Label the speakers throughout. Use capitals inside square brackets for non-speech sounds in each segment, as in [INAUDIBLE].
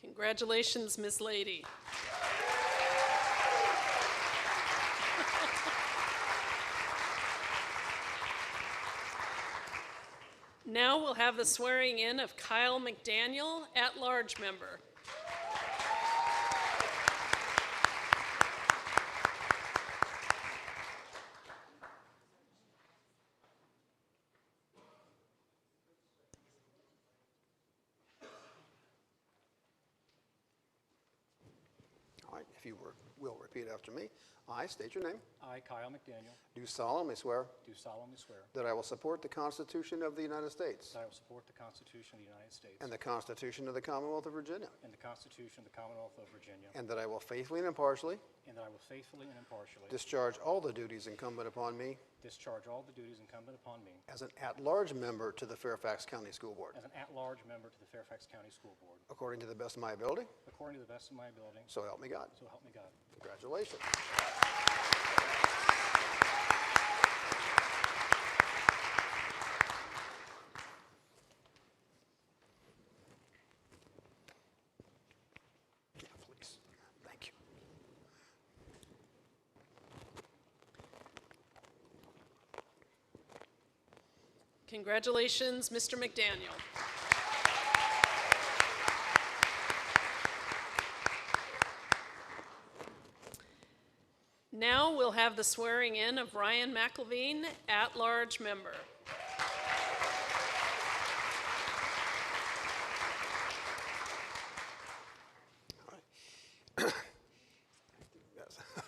Speaker 1: Congratulations, Ms. Lady. Now we'll have the swearing in of Kyle McDaniel, at-large member.
Speaker 2: All right, if you were- will repeat after me. I state your name.
Speaker 3: I, Kyle McDaniel,
Speaker 2: Do solemnly swear
Speaker 3: do solemnly swear
Speaker 2: that I will support the Constitution of the United States
Speaker 3: that I will support the Constitution of the United States
Speaker 2: and the Constitution of the Commonwealth of Virginia,
Speaker 3: and the Constitution of the Commonwealth of Virginia,
Speaker 2: and that I will faithfully and impartially
Speaker 3: and that I will faithfully and impartially
Speaker 2: discharge all the duties incumbent upon me
Speaker 3: discharge all the duties incumbent upon me
Speaker 2: as an at-large member to the Fairfax County School Board,
Speaker 3: as an at-large member to the Fairfax County School Board,
Speaker 2: according to the best of my ability,
Speaker 3: according to the best of my ability,
Speaker 2: so help me God.
Speaker 3: so help me God.
Speaker 2: Congratulations. Yeah, please. Thank you.
Speaker 1: Congratulations, Mr. McDaniel. Now we'll have the swearing in of Ryan McElveen, at-large member.
Speaker 2: Yes. [LAUGHS] All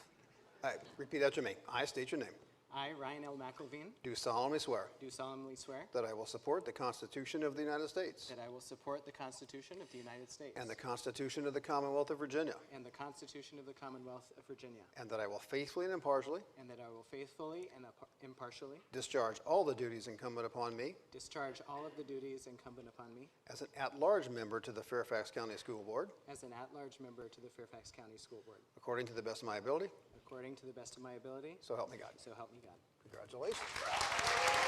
Speaker 2: right, repeat after me. I state your name.
Speaker 4: I, Ryan L. McElveen,
Speaker 2: Do solemnly swear
Speaker 4: do solemnly swear
Speaker 2: that I will support the Constitution of the United States
Speaker 4: that I will support the Constitution of the United States
Speaker 2: and the Constitution of the Commonwealth of Virginia,
Speaker 4: and the Constitution of the Commonwealth of Virginia,
Speaker 2: and that I will faithfully and impartially
Speaker 4: and that I will faithfully and impa- impartially
Speaker 2: discharge all the duties incumbent upon me
Speaker 4: discharge all of the duties incumbent upon me
Speaker 2: As an at-large member to the Fairfax County School Board,
Speaker 4: as an at-large member to the Fairfax County School Board,
Speaker 2: according to the best of my ability,
Speaker 4: according to the best of my ability,
Speaker 2: so help me God.
Speaker 4: so help me God.
Speaker 2: Congratulations.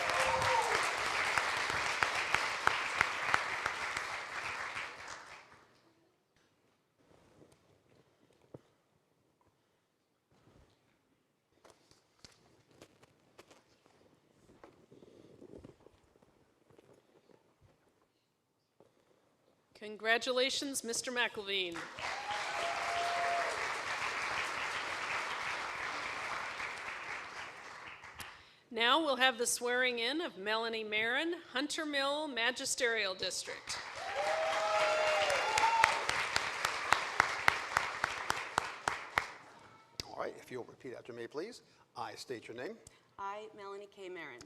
Speaker 1: Congratulations, Mr. McElveen. Now we'll have the swearing in of Melanie Marin, Hunter Mill Magisterial District.
Speaker 2: All right, if you'll repeat after me, please. I state your name.
Speaker 5: I, Melanie K. Marin,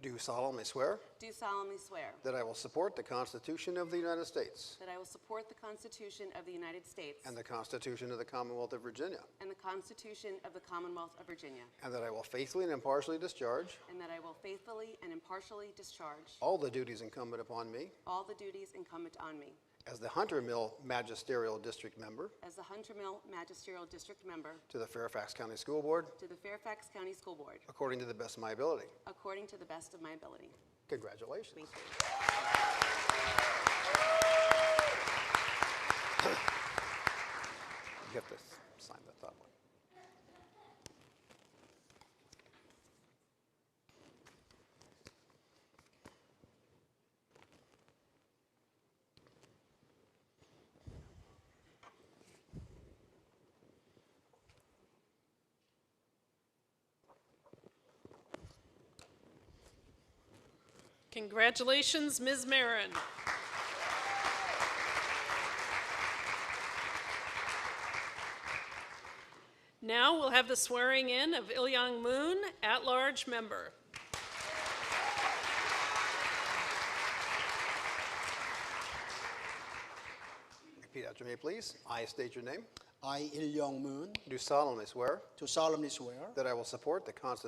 Speaker 2: Do solemnly swear
Speaker 5: do solemnly swear
Speaker 2: that I will support the Constitution of the United States
Speaker 5: that I will support the Constitution of the United States
Speaker 2: and the Constitution of the Commonwealth of Virginia,
Speaker 5: and the Constitution of the Commonwealth of Virginia,
Speaker 2: and that I will faithfully and impartially discharge
Speaker 5: and that I will faithfully and impartially discharge
Speaker 2: all the duties incumbent upon me
Speaker 5: all the duties incumbent on me
Speaker 2: as the Hunter Mill Magisterial District Member
Speaker 5: as the Hunter Mill Magisterial District Member
Speaker 2: to the Fairfax County School Board,
Speaker 5: to the Fairfax County School Board,
Speaker 2: according to the best of my ability.
Speaker 5: according to the best of my ability.
Speaker 2: Congratulations.
Speaker 5: Thank you.
Speaker 2: You have to s- sign the top one.
Speaker 1: Congratulations, Ms. Marin. Now we'll have the swearing in of Ilyang Moon, at-large member.
Speaker 2: Repeat after me, please. I state your name.
Speaker 6: I, Il Young Moon,
Speaker 2: Do solemnly swear
Speaker 6: do solemnly swear
Speaker 2: that I will support the Constitution